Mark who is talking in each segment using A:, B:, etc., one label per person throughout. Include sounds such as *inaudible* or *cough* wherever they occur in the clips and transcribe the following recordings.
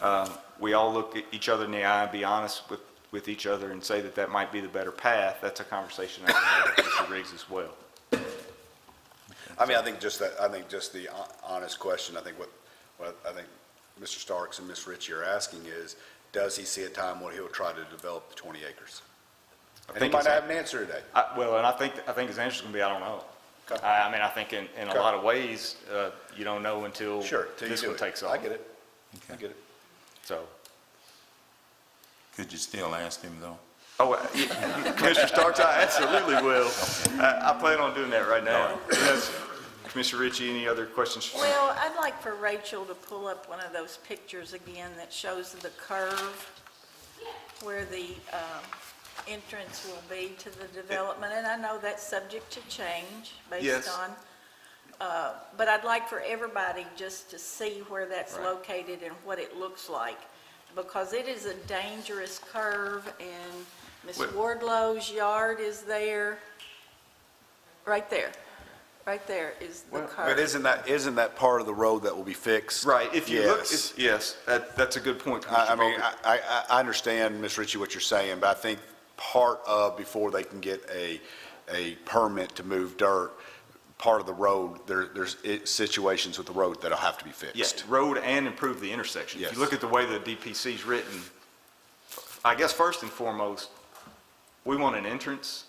A: um, we all look at each other in the eye and be honest with, with each other and say that that might be the better path, that's a conversation I would have with Mr. Riggs as well.
B: I mean, I think just that, I think just the hon- honest question, I think what, what I think Mr. Starks and Ms. Ritchie are asking is, does he see a time when he'll try to develop the 20 acres?
A: I
B: And he
A: think
B: might
A: it's-
B: not have an answer today.
A: I- Well, and I think, I think his answer's going to be, I don't know.
B: Okay.
A: I, I mean, I think in, in a
B: Okay.
A: lot of ways, uh, you don't know until
B: Sure, till you
A: this
B: do
A: one
B: it.
A: takes off.
B: I get it. I get it.
A: So,
C: Could you still ask him, though?
A: oh, uh, yeah, *laughs* Commissioner Starks, I absolutely will. I, I plan on doing that right now. Yes. Commissioner Ritchie, any other questions?
D: Well, I'd like for Rachel to pull up one of those pictures again that shows the curve where the um, entrance will be to the development, and I know that's subject to change
A: Yes.
D: based on, uh, but I'd like for everybody just to see where that's
A: Right.
D: located and what it looks like, because it is a dangerous curve, and Ms.
A: Wait.
D: Wardlow's yard is there, right there, right there is the
A: Well,
D: curve.
B: But isn't that, isn't that part of the road that will be fixed?
A: Right, if you look,
B: Yes.
A: it's- yes, that, that's a good point,
B: I, I
A: Commissioner
B: mean,
A: Baldwin.
B: I, I, I understand, Ms. Ritchie, what you're saying, but I think part of, before they can get a, a permit to move dirt, part of the road, there, there's it- situations with the road that'll have to be fixed.
A: Yeah, road and improve the intersection. If
B: Yes.
A: you look at the way the DPC's written, I guess first and foremost, we want an entrance,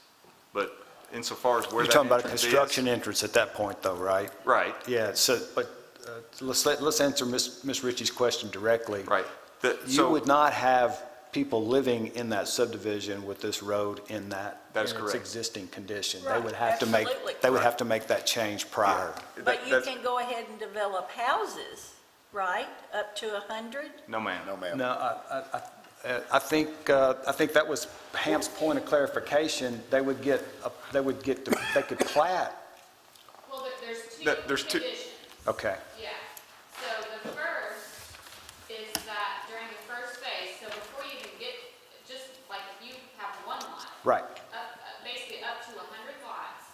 A: but insofar as where
E: You're
A: that
E: talking about a
A: entrance is.
E: construction entrance at that point, though, right?
A: Right,
E: Yeah, so, but uh, let's, let- let's answer Ms. Ms. Ritchie's question directly.
A: right. The-
E: You
A: so-
E: would not have people living in that subdivision with this road in that.
A: That is
E: in
A: correct.
E: its existing condition. They
D: Right,
E: would have to make,
D: absolutely.
E: they would
A: Right.
E: have to make that change prior.
A: that-
D: But you
A: that's-
D: can go ahead and develop houses, right, up to 100?
A: No, ma'am.
B: No, ma'am.
E: No, I, I- I, uh, I think, uh, I think that was Ham's point of clarification. They would get, a- they would get, to- they could plat,
F: Well, there- there's two
A: That- there's two-
F: conditions.
E: okay.
F: Yeah. So the first is that during the first phase, so before you even get, just like if you have one lot.
E: Right.
F: Up, up- basically up to hundred lots,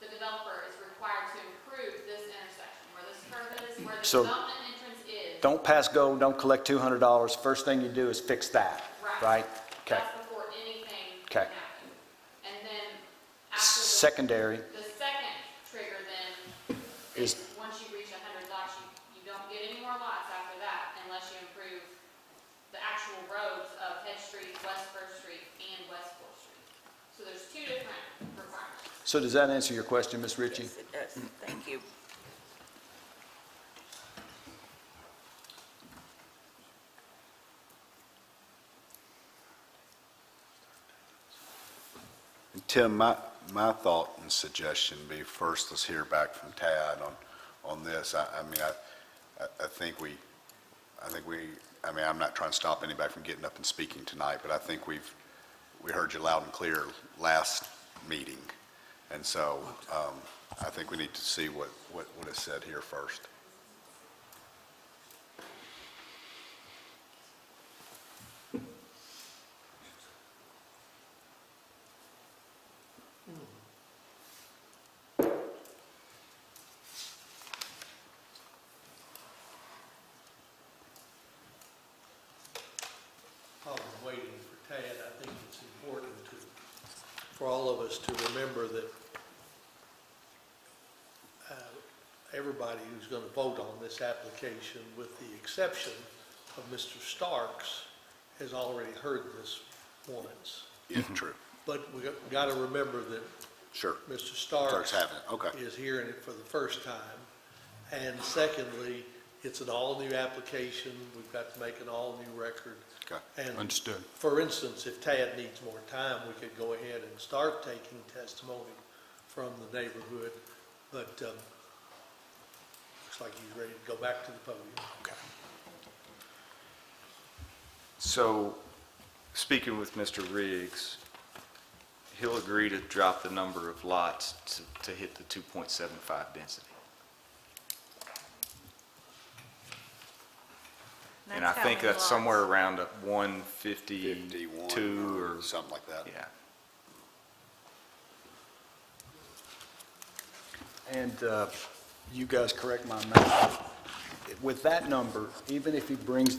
F: the developer is required to improve this intersection where this curve is, where the
E: So-
F: development entrance is.
E: Don't pass go, don't collect $200. First thing you do is fix that, right? Okay.
F: That's before anything
E: Okay.
F: can happen. And then after the.
E: Secondary,
F: The second trigger then is,
E: Is-
F: once you reach hundred lots, you, you don't get any more lots after that unless you improve the actual roads of Head Street, West First Street, and West Fourth Street. So there's two different requirements.
E: so does that answer your question, Ms. Ritchie?
D: Yes, it does. Thank you.
B: Tim, my, my thought and suggestion be first, let's hear back from Tad on, on this. I, I mean, I, I- I think we, I think we, I mean, I'm not trying to stop anybody from getting up and speaking tonight, but I think we've, we heard you loud and clear last meeting. And so, um, I think we need to see what, what, what is said here first.
G: while we're waiting for Tad, I think it's important to, for all of us to remember that uh, everybody who's going to vote on this application, with the exception of Mr. Starks, has already heard this once.
B: Yeah, true.
G: But we got to remember that
B: Sure.
G: Mr. Starks.
B: Starks having it, okay.
G: Is hearing it for the first time. And secondly, it's an all-new application. We've got to make an all-new record.
B: Okay.
G: And
C: Understood.
G: for instance, if Tad needs more time, we could go ahead and start taking testimony from the neighborhood, but um, looks like he's ready to go back to the podium.
A: So, speaking with Mr. Riggs, he'll agree to drop the number of lots to, to hit the 2.75 density. And I
D: how
A: think
D: many
A: that's
D: lots.
A: somewhere around a
B: 51
A: 152 or,
B: Something like that.
A: yeah.
E: And uh, you guys correct my math. With that number, even if he brings